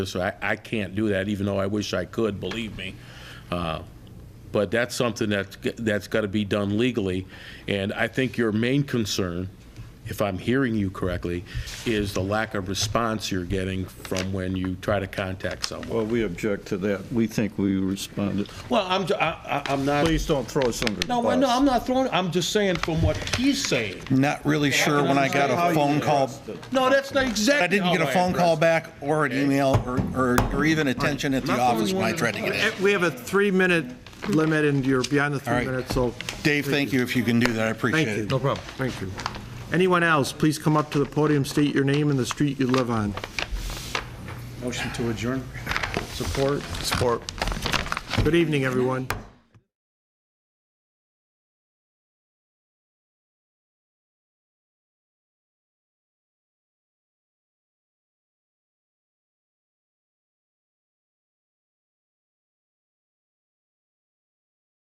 So I, I can't do that, even though I wish I could, believe me. Uh, But that's something that's, g- that's got to be done legally. And I think your main concern, if I'm hearing you correctly, is the lack of response you're getting from when you try to contact someone. Well, we object to that. We think we responded. Well, I'm, j- I, am not, Please don't throw us under the no, bus. no, I'm not throwing, I'm just saying from what he's saying. Not really sure when I got How a you phone call. addressed it. No, that's not exactly I didn't get a how I phone call addressed back or an email or, or, or even attention at the Not the only office when I one. tried to get in. Eh, We have a three-minute limit, and you're beyond the All three right. minutes, so. Dave, thank you if you can do that. I appreciate Thank it. you. No problem. Thank you. Anyone else, please come up to the podium, state your name and the street you live on. Motion to adjourn. Support? Support. Good evening, everyone.